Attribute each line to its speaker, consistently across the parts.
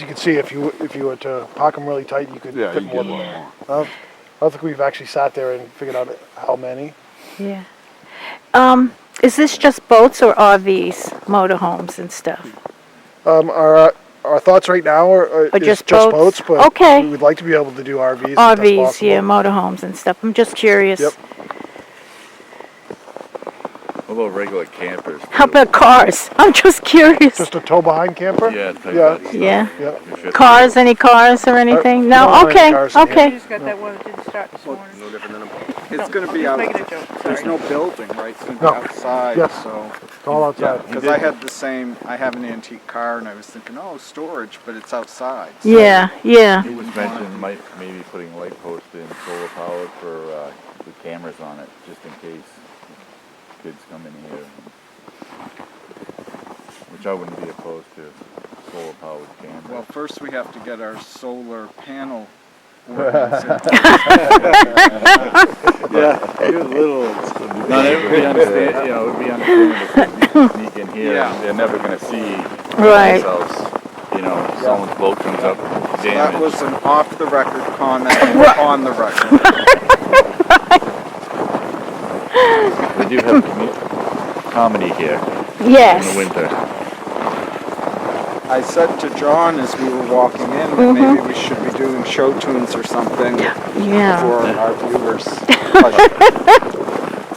Speaker 1: You can see if you if you were to pack them really tight, you could
Speaker 2: Yeah,
Speaker 1: fit
Speaker 2: you
Speaker 1: more
Speaker 2: get
Speaker 1: than
Speaker 2: more.
Speaker 1: that. I don't, I don't think we've actually sat there and figured out how many.
Speaker 3: Yeah. Um, is this just boats or RVs, motorhomes and stuff?
Speaker 1: Um, our our thoughts right now are, are
Speaker 3: Or
Speaker 1: is
Speaker 3: just boats?
Speaker 1: boats, but
Speaker 3: Okay.
Speaker 1: we'd like to be able to do RVs. if that's
Speaker 3: RVs,
Speaker 1: possible.
Speaker 3: yeah, motorhomes and stuff. I'm just curious.
Speaker 1: Yep.
Speaker 2: What about regular campers?
Speaker 3: How about cars? I'm just curious.
Speaker 1: Just a tow behind camper.
Speaker 2: Yeah. type
Speaker 1: Yeah.
Speaker 2: of stuff.
Speaker 3: Yeah.
Speaker 1: Yep.
Speaker 2: You fit-
Speaker 3: Cars, any cars or anything?
Speaker 1: Uh, no, I
Speaker 3: No,
Speaker 1: don't have
Speaker 3: okay,
Speaker 1: cars in here.
Speaker 4: You
Speaker 3: okay.
Speaker 4: just got that one that didn't start this morning.
Speaker 5: No different than a. It's gonna be out,
Speaker 4: Making a joke,
Speaker 5: there's
Speaker 4: sorry.
Speaker 5: no building, right, it's gonna be
Speaker 1: No. Yeah.
Speaker 5: outside, so.
Speaker 1: It's all outside.
Speaker 5: Cause I had the same, I have an antique car and I was thinking, oh, storage, but it's outside. so-
Speaker 3: Yeah, yeah.
Speaker 2: It was mentioned might, maybe putting light posts in solar powered for, uh, the cameras on it, just in case kids come in here. Which I wouldn't be opposed to, solar powered
Speaker 5: Well,
Speaker 2: cameras.
Speaker 5: first we have to get our solar panel ordinance in
Speaker 2: Yeah, you're little. Not everybody understand, you know, it would be understandable if you sneak in here,
Speaker 5: Yeah.
Speaker 2: and they're never gonna see
Speaker 3: Right.
Speaker 2: themselves. You know, someone's boat comes up
Speaker 5: That
Speaker 2: damaged.
Speaker 5: was an off-the-record comment on the record.
Speaker 2: We do have commu- comedy here in the
Speaker 3: Yes.
Speaker 2: winter.
Speaker 5: I said to John as we were walking in
Speaker 3: Mm-hmm.
Speaker 5: that maybe we should be doing show tunes or something for
Speaker 3: Yeah.
Speaker 5: our viewers. pleasure.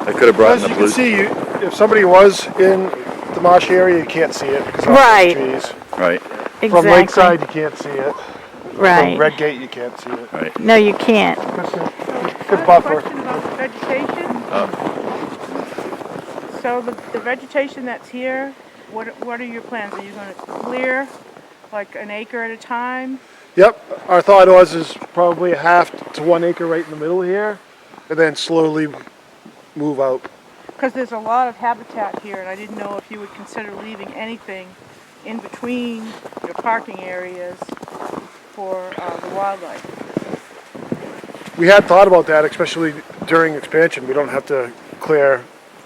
Speaker 2: I could have brought
Speaker 1: As
Speaker 2: in
Speaker 1: you can
Speaker 2: a blue.
Speaker 1: see, you, if somebody was in the marsh area, you can't see it because of
Speaker 3: Right.
Speaker 1: the trees.
Speaker 2: Right,
Speaker 1: From Lakeside,
Speaker 3: Exactly.
Speaker 1: you can't see it. From
Speaker 3: Right.
Speaker 1: Red Gate, you can't see it.
Speaker 2: right.
Speaker 3: No, you can't.
Speaker 4: I
Speaker 1: Good
Speaker 4: have a
Speaker 1: buffer.
Speaker 4: Uh, question about the vegetation. So the, the vegetation that's here, what, what are your plans? Are you gonna clear like an acre at a time?
Speaker 1: Yep. Our thought was is probably a half to one acre right in the middle here, and then slowly move out.
Speaker 4: Because there's a lot of habitat here and I didn't know if you would consider leaving anything in between your parking areas for, uh, the wildlife.
Speaker 1: We had thought about that, especially during expansion. We don't have to clear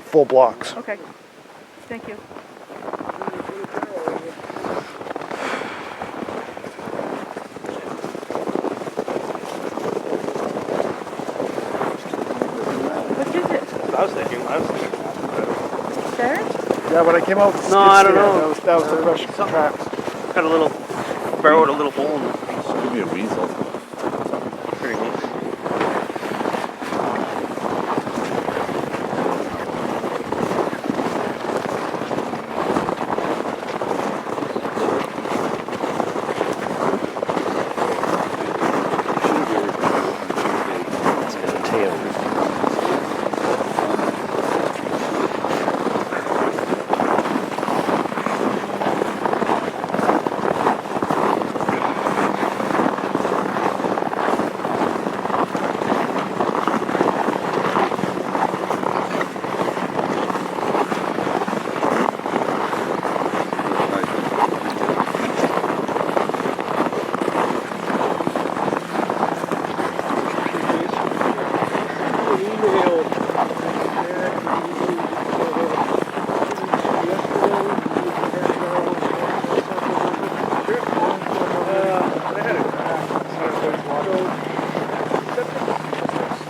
Speaker 1: full blocks.
Speaker 4: Okay, thank you. What is it?
Speaker 6: I was thinking last night.
Speaker 4: Ferret?
Speaker 1: Yeah, when I came out, with
Speaker 6: No, I
Speaker 1: skid steer,
Speaker 6: don't know.
Speaker 1: That was, that was the question.
Speaker 6: Something. Got a little, burrowed a little hole in it.
Speaker 2: Could be a weasel.
Speaker 6: Pretty neat. It's got a tail.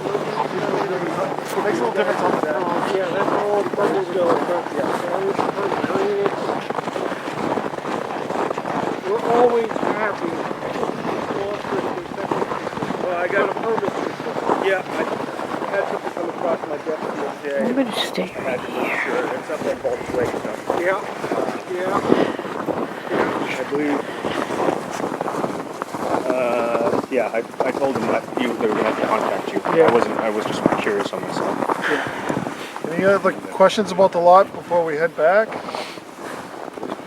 Speaker 1: Makes a little difference on the back.
Speaker 7: Yeah, that's where all the bubbles go. Yeah. We're always happy. Well, I got a permit. Yeah, I had something come across my desk the other day.
Speaker 3: I'm gonna stay right
Speaker 7: Had to be sure. It's up at Bulge Lake. Yeah, yeah.
Speaker 6: I believe. Uh, yeah, I, I told them that you they were gonna have to contact you. I wasn't. I was just curious on myself.
Speaker 1: Any other questions about the lot before we head back?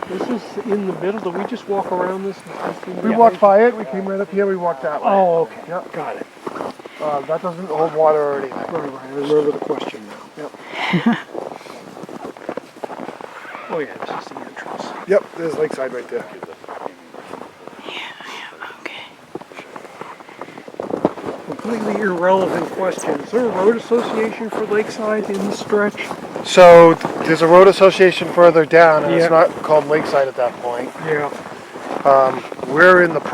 Speaker 7: This is in the middle. Do we just walk around this?
Speaker 1: We walked by it. We came right up here. We walked that way.
Speaker 7: Oh, okay.
Speaker 1: Yep.
Speaker 7: Got it.
Speaker 1: Uh, that doesn't hold water or anything.
Speaker 7: All right, I remember the question now. Yep. Oh, yeah, this is the entrance.
Speaker 1: Yep, there's lakeside right there.
Speaker 3: Okay.
Speaker 7: Completely irrelevant question. Is there a road association for Lakeside in the stretch?
Speaker 1: So th- there's a road association further down, and
Speaker 7: Yeah.
Speaker 1: it's not called Lakeside at that point.
Speaker 7: Yeah.
Speaker 1: We're in the